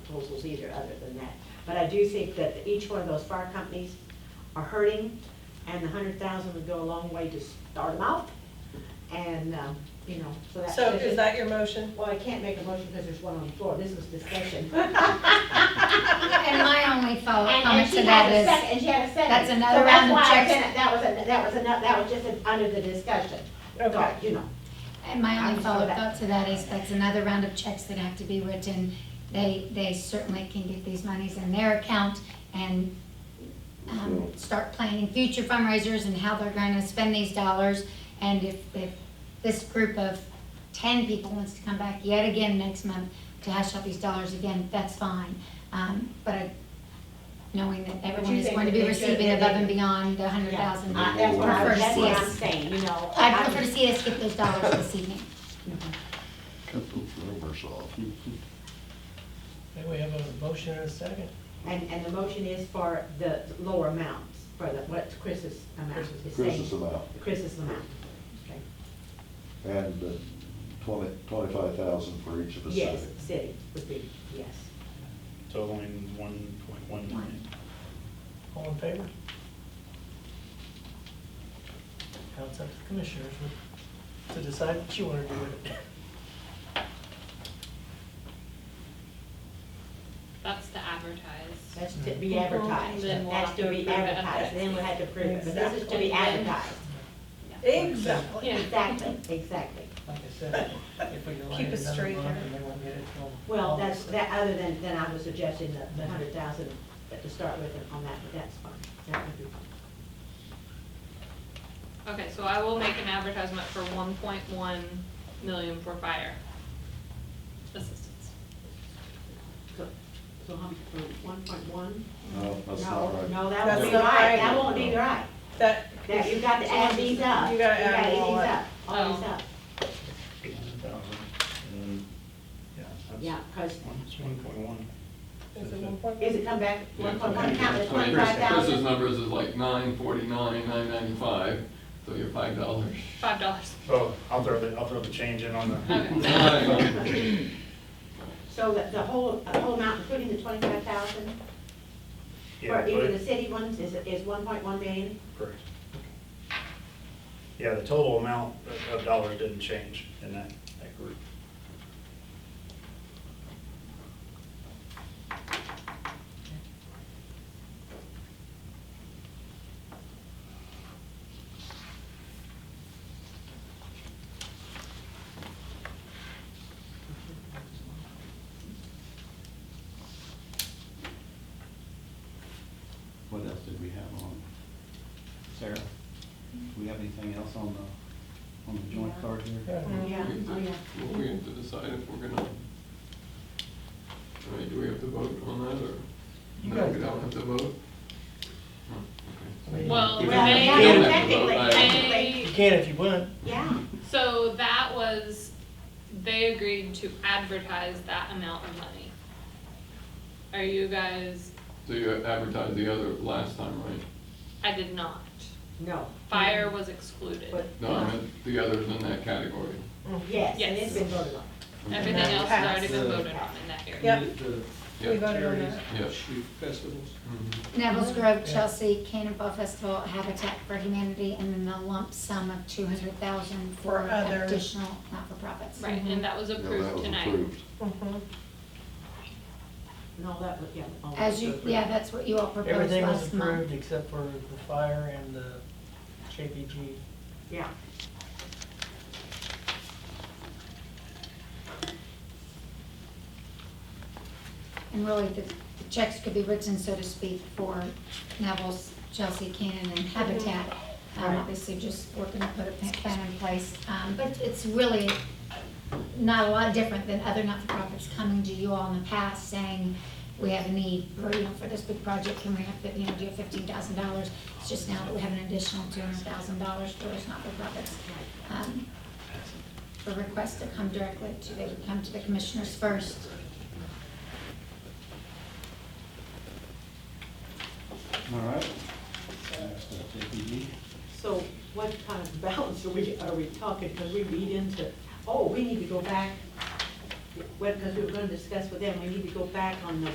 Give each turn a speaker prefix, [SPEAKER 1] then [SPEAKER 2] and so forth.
[SPEAKER 1] proposals either, other than that. But I do think that each one of those fire companies are hurting, and the hundred thousand would go a long way to start them out, and, um, you know, so that's.
[SPEAKER 2] So is that your motion?
[SPEAKER 1] Well, I can't make a motion because there's one on the floor, this was discussion.
[SPEAKER 3] And my only
[SPEAKER 1] And-
[SPEAKER 3] thought,
[SPEAKER 1] and
[SPEAKER 3] comment
[SPEAKER 1] she
[SPEAKER 3] to
[SPEAKER 1] had
[SPEAKER 3] that
[SPEAKER 1] a
[SPEAKER 3] is,
[SPEAKER 1] second- And she had a second.
[SPEAKER 3] that's
[SPEAKER 1] So
[SPEAKER 3] another
[SPEAKER 1] that's
[SPEAKER 3] round of
[SPEAKER 1] why I
[SPEAKER 3] checks.
[SPEAKER 1] said That was, a- that was enough, that was just an- under the discussion,
[SPEAKER 2] Okay.
[SPEAKER 1] you know.
[SPEAKER 3] and my
[SPEAKER 1] I'm
[SPEAKER 3] only follow-up
[SPEAKER 1] sorry.
[SPEAKER 3] thought to that is, that's another round of checks that have to be written. They, they certainly can get these monies in their account and, um, start planning future fundraisers and how they're gonna spend these dollars. And if, if this group of ten people wants to come back yet again next month to hash out these dollars again, that's fine. Um, but I- knowing that everyone
[SPEAKER 1] you
[SPEAKER 3] is
[SPEAKER 1] think
[SPEAKER 3] going to
[SPEAKER 1] that
[SPEAKER 3] be
[SPEAKER 1] they should-
[SPEAKER 3] receiving above and
[SPEAKER 1] they-
[SPEAKER 3] beyond the hundred thousand.
[SPEAKER 1] I- That's what I,
[SPEAKER 3] Prefer to
[SPEAKER 1] that's
[SPEAKER 3] see
[SPEAKER 1] what I'm
[SPEAKER 3] us-
[SPEAKER 1] saying, you know.
[SPEAKER 3] I'd prefer to see us get those dollars this evening.
[SPEAKER 4] Cut those rumors off.
[SPEAKER 2] Okay, we have a motion and a second.
[SPEAKER 1] And, and the motion is for the lower amounts, for the, what Chris's amount is
[SPEAKER 4] Chris's
[SPEAKER 1] saying.
[SPEAKER 4] amount,
[SPEAKER 1] Chris's amount. Okay.
[SPEAKER 4] and uh, twenty, twenty-five thousand for each of the
[SPEAKER 1] Yes,
[SPEAKER 4] city.
[SPEAKER 1] city would be, yes.
[SPEAKER 5] totaling one point one million.
[SPEAKER 2] All in favor? Now it's up to the commissioners to decide what you want to do with it.
[SPEAKER 6] That's to advertise.
[SPEAKER 1] That's to be advertised.
[SPEAKER 6] Then we'll
[SPEAKER 1] That's
[SPEAKER 6] have
[SPEAKER 1] to
[SPEAKER 6] to
[SPEAKER 1] be
[SPEAKER 6] approve it.
[SPEAKER 1] advertised, then we'll have to prove it, but this is to
[SPEAKER 6] Exactly.
[SPEAKER 1] be advertised.
[SPEAKER 2] Exactly.
[SPEAKER 6] Yeah.
[SPEAKER 1] Exactly, exactly.
[SPEAKER 2] Like I said, if we delay
[SPEAKER 7] Keep
[SPEAKER 2] it
[SPEAKER 7] it
[SPEAKER 2] another
[SPEAKER 7] straight
[SPEAKER 2] month
[SPEAKER 7] there.
[SPEAKER 2] and they won't get it till.
[SPEAKER 1] Well, that's,
[SPEAKER 2] August.
[SPEAKER 1] that, other than, than I was suggesting the, the hundred thousand to start with on that, but that's fine. That would be fine.
[SPEAKER 6] Okay, so I will make an advertisement for one point one million for fire assistance.
[SPEAKER 1] So, so how much, one point one?
[SPEAKER 4] No, that's not
[SPEAKER 1] No,
[SPEAKER 4] right.
[SPEAKER 1] no, that
[SPEAKER 2] That's
[SPEAKER 1] won't be
[SPEAKER 2] not
[SPEAKER 1] right,
[SPEAKER 2] right.
[SPEAKER 1] that won't be right.
[SPEAKER 2] That,
[SPEAKER 1] That, you got to add these up.
[SPEAKER 2] You gotta add
[SPEAKER 1] You
[SPEAKER 2] them all
[SPEAKER 1] these
[SPEAKER 2] up.
[SPEAKER 1] up, all these
[SPEAKER 6] Oh.
[SPEAKER 1] up. Yeah, cause,
[SPEAKER 5] It's one point one.
[SPEAKER 2] is it one point?
[SPEAKER 1] is it come back, one point one count
[SPEAKER 8] Yeah,
[SPEAKER 1] as
[SPEAKER 8] so I mean,
[SPEAKER 1] twenty-five
[SPEAKER 8] Chris's
[SPEAKER 1] thousand?
[SPEAKER 8] numbers is like nine forty-nine, nine ninety-five, so you're five dollars.
[SPEAKER 6] Five dollars.
[SPEAKER 5] Oh, I'll throw the, I'll throw the change in on the,
[SPEAKER 1] So the, the whole, the whole amount, including the twenty-five thousand,
[SPEAKER 5] yeah,
[SPEAKER 1] for even the
[SPEAKER 5] but,
[SPEAKER 1] city ones, is, is one point one million?
[SPEAKER 5] correct. Yeah, the total amount of- of dollars didn't change in that, that group.
[SPEAKER 9] What else did we have on? Sarah, do we have anything else on the, on the joint card here?
[SPEAKER 2] Yeah.
[SPEAKER 1] Yeah, oh, yeah.
[SPEAKER 8] Well, we have to decide if we're gonna, I mean, do we have to vote on that, or?
[SPEAKER 2] You
[SPEAKER 8] No,
[SPEAKER 2] guys
[SPEAKER 8] we
[SPEAKER 2] don't.
[SPEAKER 8] don't have to vote? Huh,
[SPEAKER 2] I mean,
[SPEAKER 6] Well,
[SPEAKER 8] Yeah.
[SPEAKER 1] Well,
[SPEAKER 6] they-
[SPEAKER 1] yeah,
[SPEAKER 2] Yeah.
[SPEAKER 1] technically,
[SPEAKER 8] Yeah.
[SPEAKER 2] You
[SPEAKER 6] they,
[SPEAKER 2] can if you want.
[SPEAKER 1] yeah.
[SPEAKER 6] so that was, they agreed to advertise that amount of money. Are you guys,
[SPEAKER 8] okay. So you advertised the other last time, right?
[SPEAKER 6] I did not.
[SPEAKER 1] No.
[SPEAKER 6] Fire was excluded.
[SPEAKER 1] But-
[SPEAKER 8] No, I meant the others in that category.
[SPEAKER 1] Yes, and
[SPEAKER 6] Yes.
[SPEAKER 1] it's been voted on.
[SPEAKER 6] Everything else has already been
[SPEAKER 9] Passed.
[SPEAKER 6] voted on in that area.
[SPEAKER 2] Yep.
[SPEAKER 9] The
[SPEAKER 8] Yeah.
[SPEAKER 2] We voted on
[SPEAKER 9] charities,
[SPEAKER 2] that.
[SPEAKER 8] Yeah.
[SPEAKER 9] shoot festivals.
[SPEAKER 2] Mm-hmm.
[SPEAKER 8] Mhm.
[SPEAKER 3] Neville's Grove,
[SPEAKER 2] Yeah.
[SPEAKER 3] Chelsea, Cannonball Festival, Habitat for Humanity, and then the lump sum of two hundred thousand
[SPEAKER 2] For
[SPEAKER 3] for
[SPEAKER 2] other-
[SPEAKER 3] additional not-for-profits.
[SPEAKER 6] Right, and that was
[SPEAKER 4] Yeah, that
[SPEAKER 6] approved
[SPEAKER 4] was
[SPEAKER 6] tonight.
[SPEAKER 4] approved.
[SPEAKER 2] Mhm.
[SPEAKER 1] No, that was, yeah. all
[SPEAKER 3] As you,
[SPEAKER 1] that's
[SPEAKER 3] yeah, that's what you all proposed
[SPEAKER 2] Everything was
[SPEAKER 3] last month.
[SPEAKER 2] approved except for the fire and the JPG.
[SPEAKER 1] Yeah.
[SPEAKER 3] And really, the the checks could be written, so to speak, for Neville's, Chelsea, Cannon, and Habitat. Um,
[SPEAKER 1] Right.
[SPEAKER 3] Obviously, just working to put a pa- plan in place. Um, But it's really not a lot different than other not-for-profits coming to you all in the past saying, we have a need, or, you know, for this big project, can we have, you know, do fifteen thousand dollars? It's just now that we have an additional two hundred thousand dollars for those not-for-profits. Um, For requests to come directly to, they would come to the commissioners first.
[SPEAKER 9] All right. uh, Next up, JPG.
[SPEAKER 1] So what kind of balance are we, are we talking, because we read into, oh, we need to go back, well, because we were gonna discuss with them, we need to go back on the